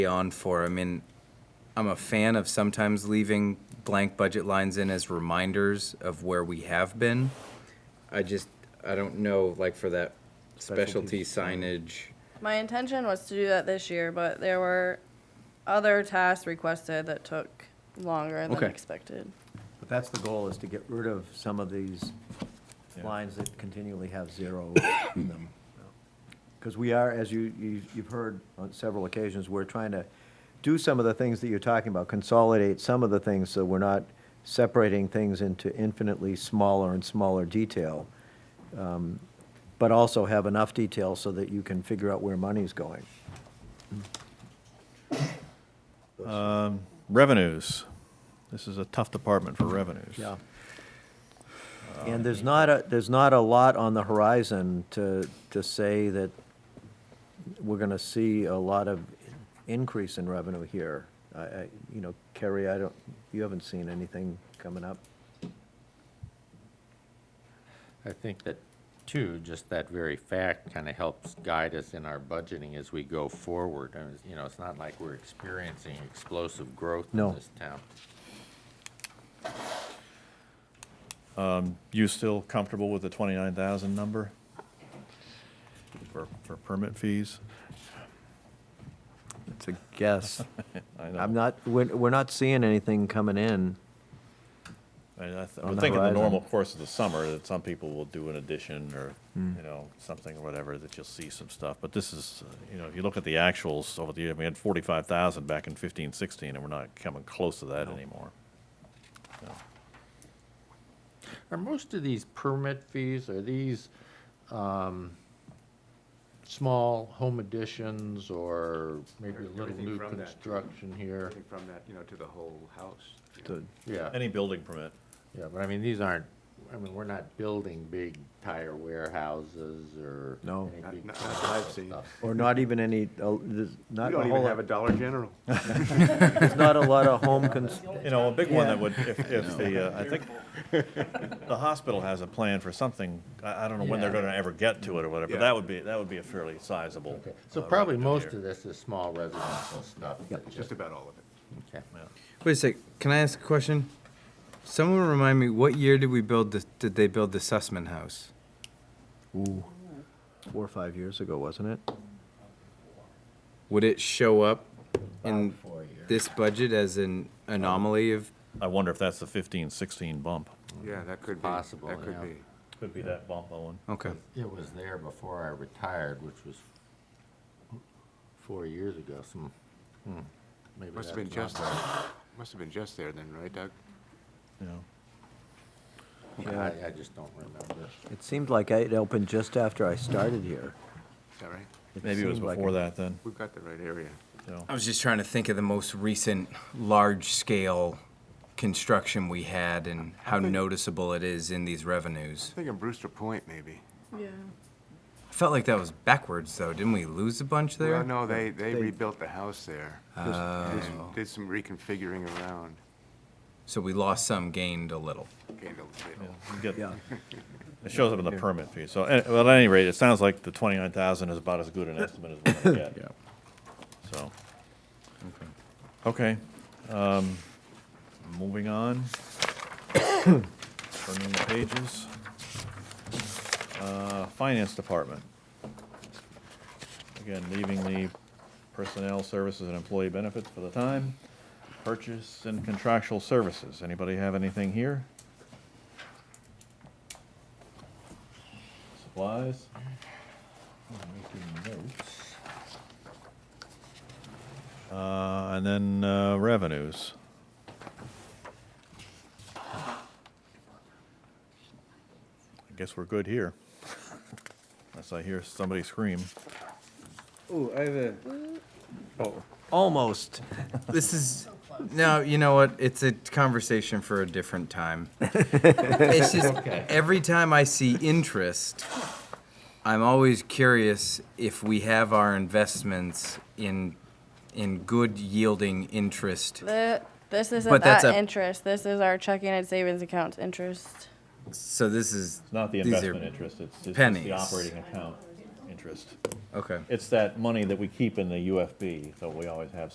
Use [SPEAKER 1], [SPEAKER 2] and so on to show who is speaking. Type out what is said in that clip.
[SPEAKER 1] on for. I mean, I'm a fan of sometimes leaving blank budget lines in as reminders of where we have been. I just, I don't know, like for that specialty signage.
[SPEAKER 2] My intention was to do that this year, but there were other tasks requested that took longer than
[SPEAKER 1] Okay.
[SPEAKER 2] expected.
[SPEAKER 3] But that's the goal, is to get rid of some of these lines that continually have zero in them. Because we are, as you, you- you've heard on several occasions, we're trying to do some of the things that you're talking about, consolidate some of the things, so we're not separating things into infinitely smaller and smaller detail, um, but also have enough detail so that you can figure out where money's going.
[SPEAKER 4] Revenues. This is a tough department for revenues.
[SPEAKER 3] Yeah. And there's not a, there's not a lot on the horizon to, to say that we're gonna see a lot of increase in revenue here. I, I, you know, Kerry, I don't, you haven't seen anything coming up?
[SPEAKER 5] I think that, too, just that very fact kind of helps guide us in our budgeting as we go forward. And, it's- you know, it's not like we're experiencing explosive growth
[SPEAKER 3] No.
[SPEAKER 5] in this town.
[SPEAKER 4] You still comfortable with the twenty-nine thousand number? For, for permit fees?
[SPEAKER 3] It's a guess.
[SPEAKER 4] I
[SPEAKER 3] I'm
[SPEAKER 4] know,
[SPEAKER 3] not, we're, we're not seeing anything coming in.
[SPEAKER 4] I I th-
[SPEAKER 3] on
[SPEAKER 4] would
[SPEAKER 3] the
[SPEAKER 4] think in the
[SPEAKER 3] horizon.
[SPEAKER 4] normal course of the summer, that some people will do an addition or,
[SPEAKER 3] Hmm.
[SPEAKER 4] you know, something or whatever, that you'll see some stuff. But this is, uh, you know, if you look at the actuals over the year, we had forty-five thousand back in fifteen, sixteen, and we're not coming close to that anymore.
[SPEAKER 5] Are most of these permit fees, are these um, small home additions or maybe a little
[SPEAKER 6] Everything
[SPEAKER 5] new
[SPEAKER 6] from that.
[SPEAKER 5] construction here?
[SPEAKER 6] Everything from that, you know, to the whole house. you know.
[SPEAKER 3] to-
[SPEAKER 5] Yeah,
[SPEAKER 4] Any building permit?
[SPEAKER 5] yeah, but I mean, these aren't, I mean, we're not building big tire warehouses or.
[SPEAKER 3] No.
[SPEAKER 5] any
[SPEAKER 6] Not-
[SPEAKER 5] big
[SPEAKER 6] not that I've seen.
[SPEAKER 5] stuff.
[SPEAKER 3] Or not even any, uh, there's
[SPEAKER 6] We
[SPEAKER 3] not a
[SPEAKER 6] don't even
[SPEAKER 3] whole,
[SPEAKER 6] have a Dollar General.
[SPEAKER 3] there's not a lot of home cons,
[SPEAKER 4] You know, a big one that
[SPEAKER 3] Yeah.
[SPEAKER 4] would, if, if the, uh, I think, the hospital has a plan for something, I, I don't know when they're
[SPEAKER 5] Yeah.
[SPEAKER 4] gonna ever get to it or whatever, but
[SPEAKER 6] Yeah.
[SPEAKER 4] that would be, that would be a fairly sizable.
[SPEAKER 5] Okay, So
[SPEAKER 4] uh,
[SPEAKER 5] probably
[SPEAKER 4] revenue
[SPEAKER 5] most
[SPEAKER 4] here.
[SPEAKER 5] of this is small residential stuff. that
[SPEAKER 6] It's just about all of it.
[SPEAKER 5] Okay.
[SPEAKER 1] Wait a sec, can I ask a question? Someone remind me, what year did we build the, did they build the Sussman House?
[SPEAKER 3] four or five years ago, wasn't it?
[SPEAKER 1] Would it show up in this budget as an anomaly of?
[SPEAKER 4] I wonder if that's the fifteen, sixteen bump.
[SPEAKER 6] Yeah, that could be.
[SPEAKER 5] Possible,
[SPEAKER 6] That
[SPEAKER 5] yeah.
[SPEAKER 6] could be.
[SPEAKER 4] Could be that bump, Owen.
[SPEAKER 1] Okay.
[SPEAKER 5] It was there before I retired, which was four years ago, some, hmm, maybe
[SPEAKER 6] Must
[SPEAKER 5] that's
[SPEAKER 6] have been
[SPEAKER 5] not
[SPEAKER 6] just,
[SPEAKER 5] right.
[SPEAKER 6] must have been just there then, right, Doug?
[SPEAKER 4] Yeah.
[SPEAKER 5] Yeah, I, I just don't remember.
[SPEAKER 3] It seemed like it opened just after I started here.
[SPEAKER 6] Is that right?
[SPEAKER 4] Maybe it was
[SPEAKER 3] seemed like
[SPEAKER 4] before
[SPEAKER 3] it.
[SPEAKER 4] that then,
[SPEAKER 6] We've got the right area.
[SPEAKER 4] you know.
[SPEAKER 1] I was just trying to think of the most recent large-scale construction we had and how noticeable it is in these revenues.
[SPEAKER 6] I think in Brewster Point, maybe.
[SPEAKER 2] Yeah.
[SPEAKER 1] I felt like that was backwards, though. Didn't we lose a bunch there?
[SPEAKER 6] Well, no, they, they
[SPEAKER 3] They-
[SPEAKER 6] rebuilt the house there. Uh, And Did some reconfiguring around.
[SPEAKER 1] So we lost some, gained a little.
[SPEAKER 6] Gained a little bit.
[SPEAKER 4] You get-
[SPEAKER 3] Yeah.
[SPEAKER 4] It shows up in the permit fee, so, eh, well, at any rate, it sounds like the twenty-nine thousand is about as good an estimate as we're gonna get, so. Okay, um, moving on, turning the pages. Uh, Finance Department. Again, leaving the personnel services and employee benefits for the time. Purchase and contractual services, anybody have anything here? Supplies? Uh, and then, uh, revenues. I guess we're good here. Unless I hear somebody scream.
[SPEAKER 7] Oh, I have a,
[SPEAKER 3] Almost.
[SPEAKER 1] This is no, you know what? It's a conversation for a different time. it's just every time I see interest, I'm always curious if we have our investments in in good yielding interest.
[SPEAKER 2] The, this
[SPEAKER 1] But
[SPEAKER 2] isn't
[SPEAKER 1] that's
[SPEAKER 2] that
[SPEAKER 1] a-
[SPEAKER 2] interest. This is our checking and savings accounts interest.
[SPEAKER 1] So this is
[SPEAKER 4] It's not the
[SPEAKER 1] these are-
[SPEAKER 4] investment interest, it's, it's just
[SPEAKER 1] pennies.
[SPEAKER 4] the operating account interest.
[SPEAKER 1] Okay.
[SPEAKER 4] It's that money that we keep in the UFB, so we always have